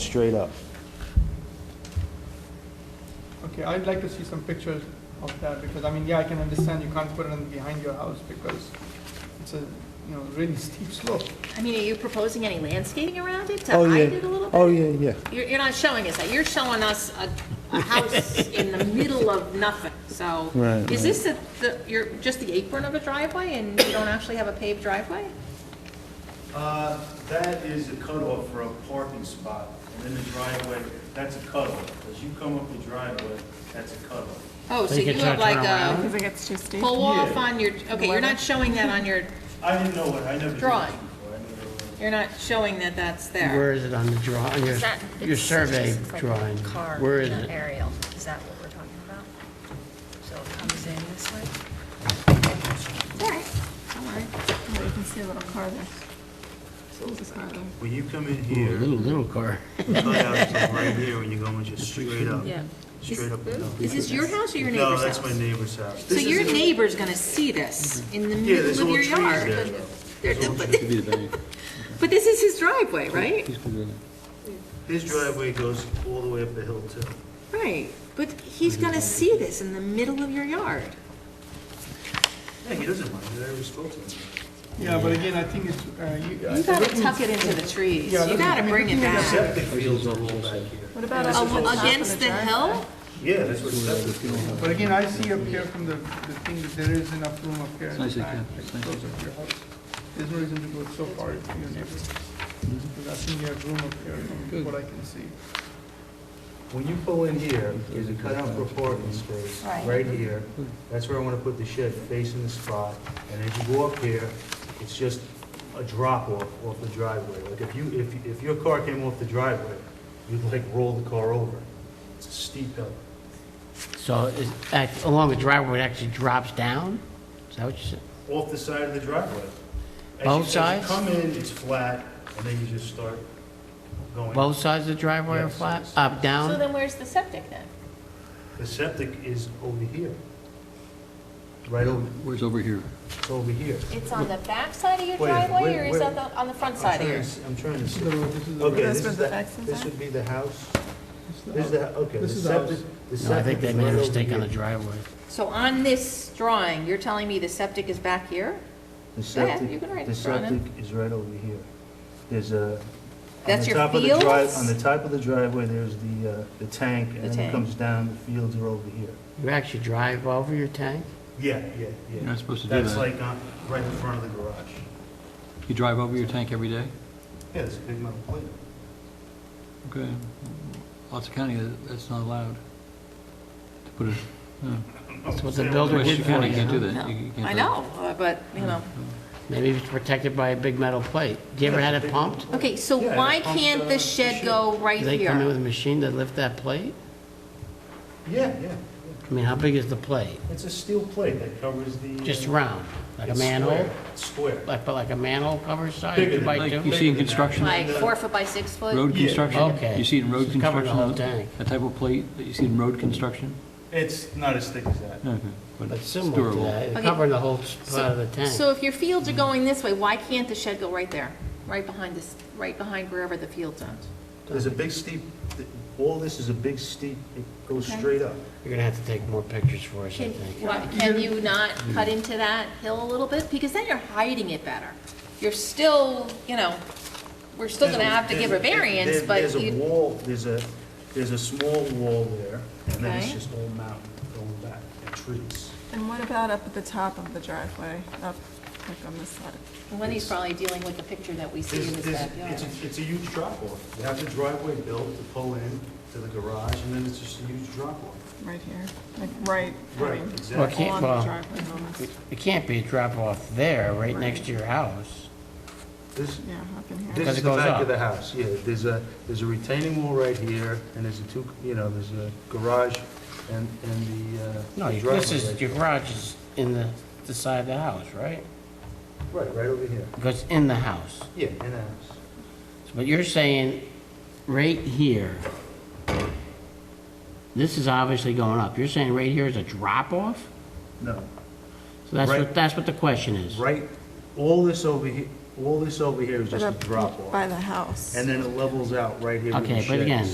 straight up. Okay, I'd like to see some pictures of that, because, I mean, yeah, I can understand you can't put it in behind your house, because it's a, you know, really steep slope. I mean, are you proposing any landscaping around it to Oh yeah. hide it a little bit? Oh, yeah, yeah. You're, you're not showing us that, you're showing us a, a house in the middle of nothing, so. Right, Is this the, the, you're, just the apron of a driveway and you don't actually have a paved driveway? Uh, That is a cutoff for a parking spot, and then the driveway, that's a cutoff. As you come up the driveway, that's a cutoff. Oh, so you have like a Because it gets too steep. pull off on your, okay, you're not showing that on your, I didn't know what, I never did this before. Drawing. I never- you're not showing that that's Where there. is it on the draw, on your, Is that- your it's survey just like a drawing? car Where is and an it? Aerial, is that what we're talking about? So it comes in this way? Don't worry. You can see a little car there. There's a car there. When you come in Ooh, a here, Little, little car. cutouts are right here, when you go in just straight up, straight up and down. Is this your house or your No, neighbor's that's my house? neighbor's house. So This your is- neighbor's gonna see this in the Yeah, there's middle of all your trees there, yard. though. But- But this is his driveway, right? His driveway goes all the way up the hill, too. Right, but he's gonna see this in the middle of your yard. Yeah, he doesn't mind, I already spoke to him. Yeah, but again, I think it's, uh, you. You gotta tuck it into the trees, Yeah, you I gotta mean, bring it looking at The back. septic fields are all back here. What about A- up at the top of Against the driveway? hill? Yeah, that's what septic fields are. But again, I see up here from the, the thing, that there is enough room up here in the back, like, close up to your house. There's no reason to go so far to your neighbor. Mm-hmm. Because I think you have room up here, from what I can see. When you pull in here, there's a cutout for parking space, right here. That's where I want to put the shed, facing the spot. And as you go up here, it's just a drop off, off the driveway. Like if you, if, if your car came off the driveway, you'd like roll the car over. It's a steep hill. So is, act- along the driveway, it actually drops down? Is that what you said? Off the side of the driveway. As you- as Both you sides? come in, it's flat, and then you just start going. Both sides of the driveway are Yes, flat, yes. up, down? then where's the septic then? The septic is over here. Right over, Where's over here? it's over here. It's on the back side of your Wait, driveway, or wait, is that wait. on the front I'm trying to s- I'm trying to see. Okay, That's this where is the the, access this are? would be the house. This is the, okay, the This is the house. septic, the No, I septic think they is made a right over mistake on the here. driveway. So on this drawing, you're telling me the septic is back here? The Go ahead, Oh, you septic, can write the it down. septic is right over here. There's a. on That's the your top of the drive- fields? On the top of the driveway, there's the, uh, the tank, The and then tank. it comes down, the fields are over here. You actually drive over your tank? Yeah, yeah, You're yeah. not supposed to do That's that. like, uh, right in front of the garage. You drive over your tank every day? Yeah, there's a big metal plate. Okay. Lots of county, that- that's not allowed to put it, no. That's what the builder did Westchester for County can't do you. that. No. You- you can't I do that. know, uh, but, you know. Maybe it's protected by a big metal plate. Do you ever had it pumped? Okay, so Yeah, why it pumps, can't uh, the the shed shed. go right Do they come in with here? a machine to lift that plate? Yeah, yeah. I mean, how big is the plate? It's a steel plate that covers the. uh, Just round, like a it's square. manhole? It's Square. Like, but like a manhole cover size, Bigger two than by like two? You see in construction, Like four foot by six foot? road Yeah. construction, Okay. you see it in road So it covered the construction, whole that tank. that type of plate that you see in road construction? It's not as thick as that. No, okay, but But it's similar to durable. that, it Okay. covered the whole spot of the tank. So if your fields are going this way, why can't the shed go right there? Right behind this, right behind wherever the fields are? There's a big steep, all this is a big steep, it goes Okay. straight up. You're gonna have to take more pictures for us, I Can, think. why- can you not cut into that hill a little bit? Because then you're hiding it better. You're still, you know, we're still gonna have to give a variance, There- but There's a you, wall, there's a, there's a small wall there, and then it's Okay. just all mountain going back, and trees. And what about up at the top of the driveway, up, like on this side? Lenny's probably dealing with the picture that we see There's- in his there's- backyard. It's, a- it's a huge drop-off. You have the driveway built to pull in to the garage, and then it's just a huge drop-off. Right here, like right. Right, uh, um, Well, it exactly. can't, Along the well, driveway almost. it it can't be a drop-off there, right next to your house. This, Yeah, up in here. This Because is it the goes back up. of the house, yeah. There's a, there's a retaining wall right here, and there's a two, you know, there's a garage and, and the uh, No, the your- driveway. this is, right- your garage is in the, the side of the house, right? Right, right over here. It Goes in the house. Yeah, in the house. But you're saying, right here, this is obviously going up. You're saying right here is a drop-off? No, So that's Right. what, that's what the question is. right, all this over here, all this over here is just a drop By off. the house. And then it levels out right here with the Okay, shed. but again,